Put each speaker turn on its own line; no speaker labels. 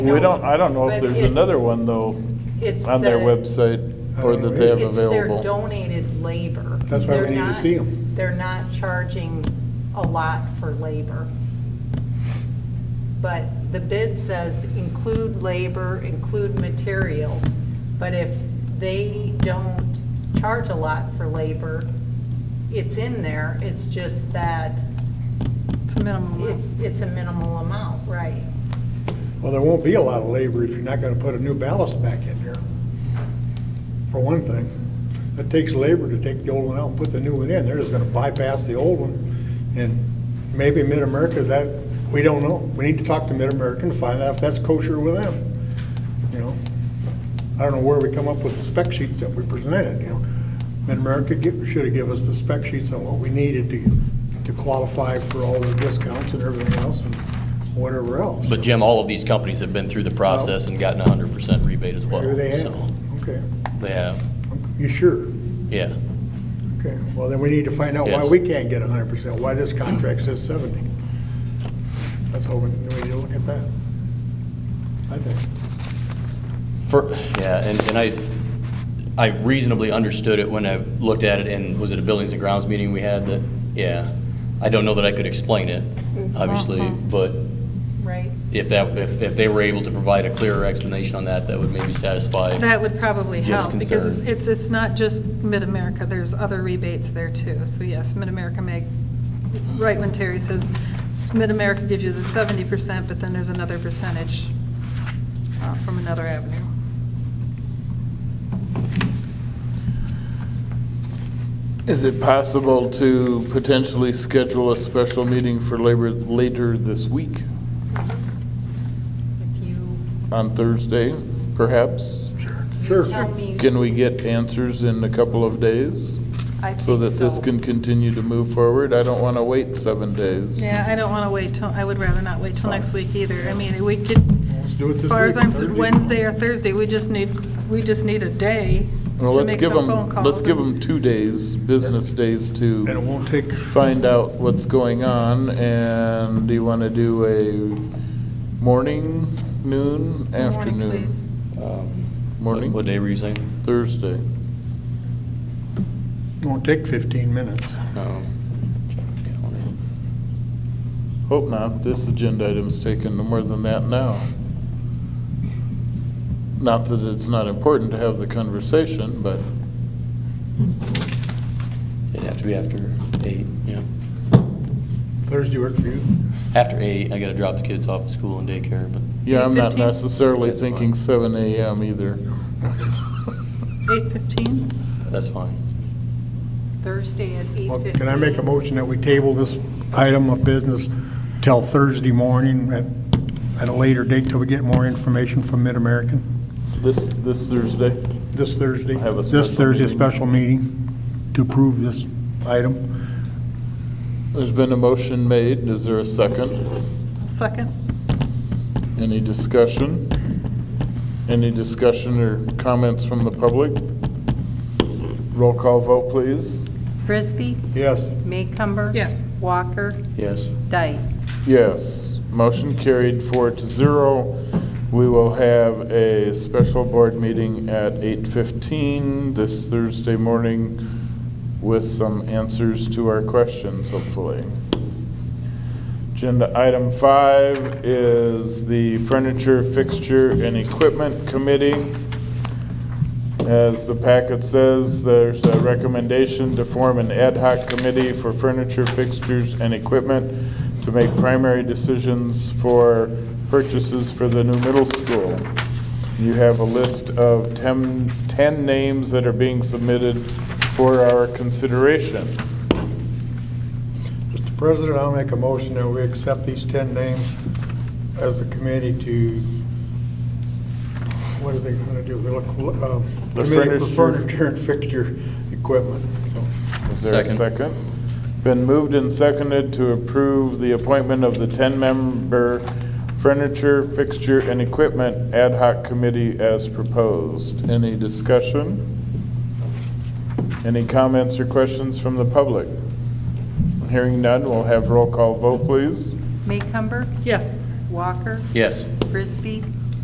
We don't, I don't know if
But
there's
it's-
another one though,
it's
on their
the-
website or that they have
It's their
available.
donated labor.
That's why we
They're
need to
not-
see 'em.
They're not charging a lot for labor. But the bid says include labor, include materials, but if they don't charge a lot for labor, it's in there, it's just that
It's a minimum.
it-
amount.
it's a minimal amount, right?
Well, there won't be a lot of labor if you're not gonna put a new ballast back in here, for one thing. It takes labor to take the old one out and put the new one in. They're just gonna bypass the old one. And maybe Mid-America, that, we don't know. We need to talk to Mid-America and find out if that's kosher with them, you know? I don't know where we come up with the spec sheets that we presented, you know? Mid-America should have given us the spec sheets on what we needed to, to qualify for all the discounts and everything else and whatever else.
But Jim, all of these companies have been through the process and gotten a hundred percent rebate as well.
Maybe they have,
so
okay.
They have,
You sure?
yeah.
Okay, well, then we need to find out why
Yes.
we can't get hundred percent, why this contract says seventy. That's all, we we need to look at that. I think,
For, yeah, and, and I, I reasonably understood it when I looked at it and was it a buildings and grounds meeting we had that, yeah. I don't know that I could explain it, obviously, but
Right?
if that, if, if they were able to provide a clearer explanation on that, that would maybe satisfy.
That would probably
Jim's
help, because
concern.
it's, it's not just Mid-America, there's other rebates there too. So yes, Mid-America may, right when Terry says, Mid-America gives you the seventy percent, but then there's another percentage uh, from another avenue.
Is it possible to potentially schedule a special meeting for labor later this week,
If you
on Thursday, perhaps?
sure.
tell me.
Can we get answers in a couple of days?
I
So
think
that this
so.
can continue to move forward? I don't want to wait seven days.
Yeah, I don't want to wait till, I would rather not wait till next week either. I mean, we could,
Let's do it this
As far as
week,
I'm,
Thursday.
Wednesday or Thursday, we just need, we just need a day
Well,
to
let's
make
give
some
them,
phone calls.
let's give them two days, business days to.
And it won't take,
find out what's going on, and do you want to do a morning, noon,
Morning,
afternoon?
please.
Um, what-
Morning?
What day were you saying?
Thursday.
won't take fifteen minutes.
Um,
Hope not, this agenda item's taken more than that now. Not that it's not important to have the conversation, but
It'd have to be after eight, yeah.
Thursday work for you?
After eight, I gotta drop the kids off at school and daycare, but
yeah, I'm not
8:15?
necessarily
That's fine.
thinking seven AM either.
Eight fifteen?
that's fine.
Thursday at eight
Well,
fifteen.
Can I make a motion that we table this item of business till Thursday morning at, at a later date till we get more information from Mid-American?
This, this Thursday?
This Thursday?
Have a
This
special
Thursday, a
meeting.
special meeting to approve this item?
There's been a motion made, is there a second?
Second?
Any discussion? Any discussion or comments from the public? Roll call vote, please.
Frisbee,
Yes.
Maycumber.
Yes.
Walker,
Yes.
Dyke.
Yes, motion carried four to zero. We will have a special board meeting at 8:15 this Thursday morning with some answers to our questions, hopefully. Agenda item five is the Furniture, Fixture, and Equipment Committee. As the packet says, there's a recommendation to form an ad hoc committee for furniture, fixtures, and equipment to make primary decisions for purchases for the new middle school. You have a list of 10, 10 names that are being submitted for our consideration.
Mr. President, I'll make a motion that we accept these 10 names as the committee to, what are they going to do? We look, um,
The
Committee for
furniture-
Furniture and Fixture Equipment. So,
Is there a
Second.
second? Been moved and seconded to approve the appointment of the 10-member Furniture, Fixture, and Equipment Ad hoc Committee as proposed. Any discussion? Any comments or questions from the public? Hearing none, we'll have roll call vote, please.
Maycumber,
Yes.
Walker,
Yes.
Frisbee,